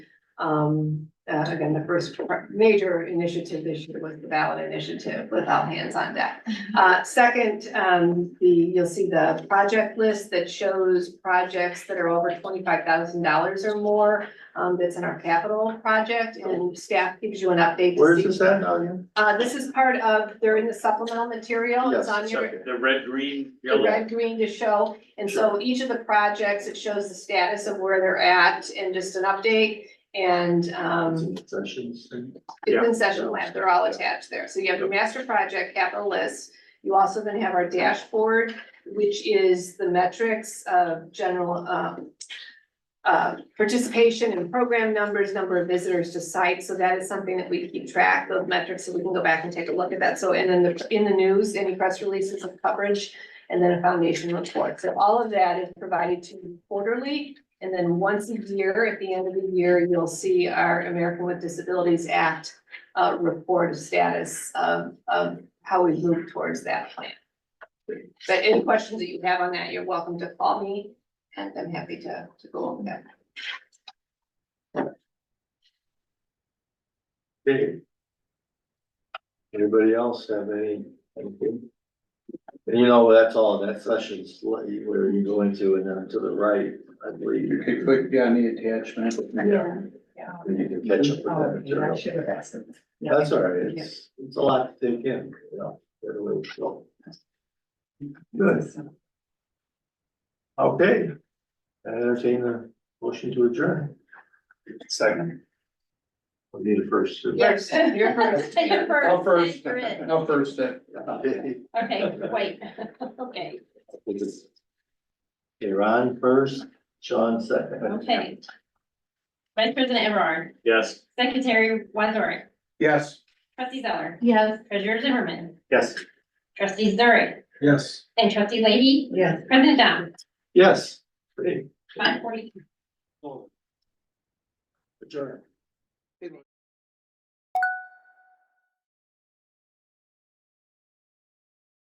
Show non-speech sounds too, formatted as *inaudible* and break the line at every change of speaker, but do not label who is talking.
Um, uh, again, the first pr- major initiative this year was the ballot initiative with all hands on deck. Uh, second, um, the, you'll see the project list that shows projects that are over twenty-five thousand dollars or more. Um, that's in our capital project and staff gives you an update. to
Where's
see-
this at now again?
Uh, this is part of, they're in the supplemental material. It's
Yes,
on
it's
your,
right here.
The red, green,
the
yellow.
red, green to show, and so each of the projects, it shows the status of where they're at and just an update. And
It's
um,
in sessions and-
it's
Yeah.
in session lab, they're all attached there, so you have your master project capital list. You also then have our dashboard, which is the metrics of general um. Uh, participation and program numbers, number of visitors to site, so that is something that we keep track of metrics, so we can go back and take a look at that, so, and then the, in the news, any press releases of coverage and then a foundation report. So all of that is provided to you quarterly. And then once a year, at the end of the year, you'll see our American with Disabilities Act uh, report of status of, of how we move towards that plan. But any questions that you have on that, you're welcome to call me and I'm happy to, to go over that.
Okay. Anybody else have any? anything? And you know, that's all, that session's what you- where you go into and then to the right, I believe.
You could click on the attachment.
Yeah. And you can catch up with that material.
have asked them.
That's all right, it's, it's a lot to take in, you know. right away, so. Good, okay. I Entertain a motion to adjourn.
Second.
We need a first. to-
Yes, you're first.
You're
Oh,
I'll
first,
first,
you're in.
I'll Oh, first it.
Okay,
Okay, wait, *laughs* okay,
it's- Okay, Ron first, Sean second.
okay. Vice President Everard,
Yes.
Secretary Wazorek,
Yes.
Trustee Zeller,
Yes.
Treasurer Zimmerman,
Yes.
Trustee Zurich,
Yes.
and Trustee Leahy,
Yes.
President Dom,
Yes. Great.
five forty.
Adjourn.